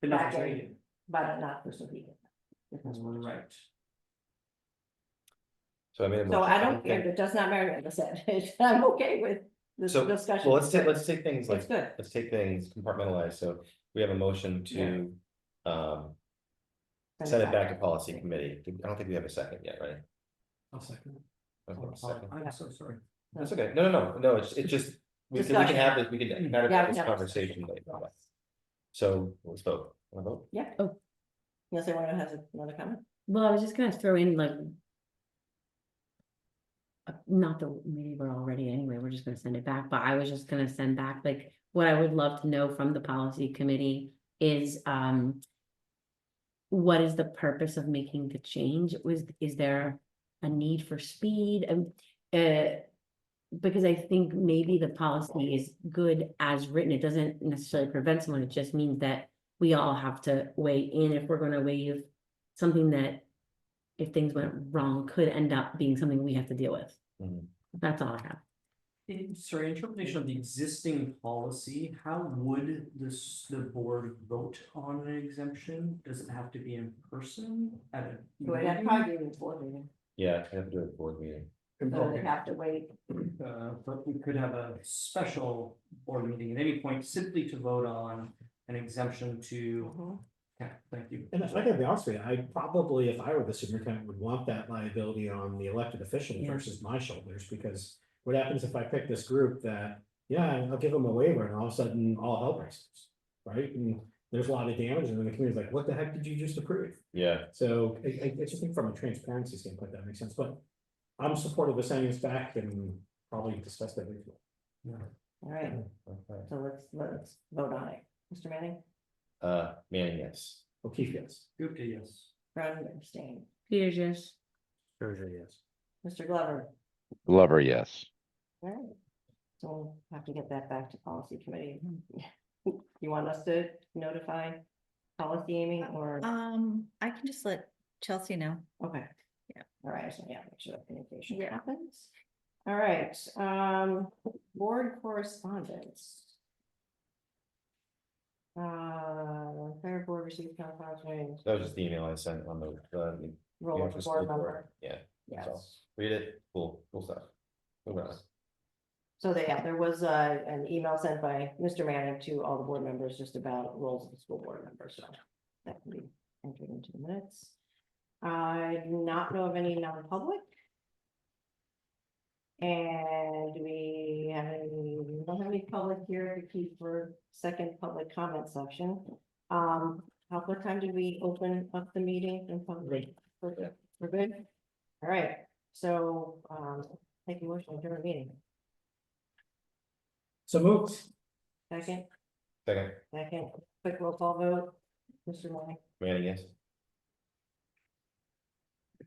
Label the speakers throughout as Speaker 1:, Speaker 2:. Speaker 1: But not
Speaker 2: Back end.
Speaker 1: rated,
Speaker 2: but not for Sohegan.
Speaker 1: right.
Speaker 3: So I made a
Speaker 2: So
Speaker 3: motion.
Speaker 2: I don't care,
Speaker 3: Okay.
Speaker 2: it does not matter what I said, I'm okay with this
Speaker 3: So,
Speaker 2: discussion.
Speaker 3: Well, let's take, let's take
Speaker 2: It's
Speaker 3: things like,
Speaker 2: good,
Speaker 3: let's take things compartmentalized, so we have a motion to, um, send it back to policy committee, I don't think we have a second yet, right?
Speaker 1: I'll second. it.
Speaker 3: Okay,
Speaker 1: Oh,
Speaker 3: second.
Speaker 1: I'm so sorry.
Speaker 3: That's okay, no, no, no, no, it's, it's just, we can, we can have this, we can have
Speaker 2: Yeah, we
Speaker 3: this
Speaker 2: have-
Speaker 3: conversation later. So, let's vote, wanna vote?
Speaker 2: yeah.
Speaker 4: Oh.
Speaker 2: Unless anyone has another comment,
Speaker 4: Well, I was just gonna throw in like. uh, Not that maybe we're already anyway, we're just gonna send it back, but I was just gonna send back, like, what I would love to know from the policy committee is, um. What is the purpose of making the change? Was, is there a need for speed? Um, uh, Because I think maybe the policy is good as written. It doesn't necessarily prevent someone. It just means that we all have to weigh in if we're gonna waive something that if things went wrong could end up being something we have to deal with.
Speaker 3: Mhm.
Speaker 4: That's all I have.
Speaker 1: In- Sorry, interpretation of the existing policy, how would this, the board vote on an exemption? Does it have to be in person at a?
Speaker 2: do I have
Speaker 1: meeting?
Speaker 2: probably even before meeting,
Speaker 3: Yeah, I have to do a board meeting,
Speaker 2: so they have to wait,
Speaker 1: Uh, but we could have a special board meeting at any point simply to vote on an exemption to,
Speaker 2: Mhm.
Speaker 1: yeah, thank you.
Speaker 5: And if I gotta be honest with you, I probably, if I were the superintendent, would want that liability on the elected official
Speaker 4: Yeah.
Speaker 5: versus my shoulders, because. What happens if I pick this group that, yeah, I'll give them a waiver and all of a sudden all hell breaks loose, right? And there's a lot of damage and then the community's like, what the heck did you just approve?
Speaker 3: yeah,
Speaker 5: So I, I, I just think from a transparency standpoint, that makes sense, but. I'm supportive of sending this back and probably discuss that. with you.
Speaker 2: all right,
Speaker 3: okay,
Speaker 2: so let's, let's vote on it, Mr. Manning,
Speaker 3: uh, Manning, yes.
Speaker 5: O'Keefe, yes.
Speaker 1: Gupta, yes.
Speaker 2: Brown abstain,
Speaker 4: Peters, yes.
Speaker 5: Sure, yes.
Speaker 2: Mr. Glover,
Speaker 6: Glover, yes.
Speaker 2: all right. So we'll have to get that back to policy committee. You want us to notify policy Amy or,
Speaker 7: Um, I can just let Chelsea know.
Speaker 2: okay.
Speaker 7: yeah.
Speaker 2: All right, so yeah, make sure that communication
Speaker 7: Yeah.
Speaker 2: happens. All right, um, board correspondence. Uh, fair board received town council. meeting.
Speaker 3: That was just the email I sent on the, uh, the
Speaker 2: Roll
Speaker 3: office
Speaker 2: of board
Speaker 3: report.
Speaker 2: member,
Speaker 3: Yeah,
Speaker 2: yes.
Speaker 3: so. read it, cool, cool stuff. Moving on.
Speaker 2: So they, yeah, there was uh an email sent by Mr. Manning to all the board members just about roles of the school board members, so that can be entered into the minutes. I do not know of any non-public. And do we have any, we don't have any public here to keep for second public comment section. Um, how, what time did we open up the meeting in public? We're good. We're good? All right, so um, take a motion during the meeting.
Speaker 5: So moved.
Speaker 2: Second,
Speaker 3: Second,
Speaker 2: second, quick roll call vote. Mr. Lang.
Speaker 3: Manning, yes.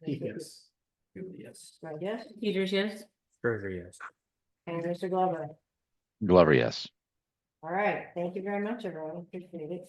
Speaker 5: O'Keefe, yes.
Speaker 1: Gupta, yes.
Speaker 2: Right, yes,
Speaker 4: Peters, yes.
Speaker 5: Sure, yes.
Speaker 2: and Mr. Glover.
Speaker 6: Glover, yes.
Speaker 2: All right, thank you very much, everyone. Appreciate it.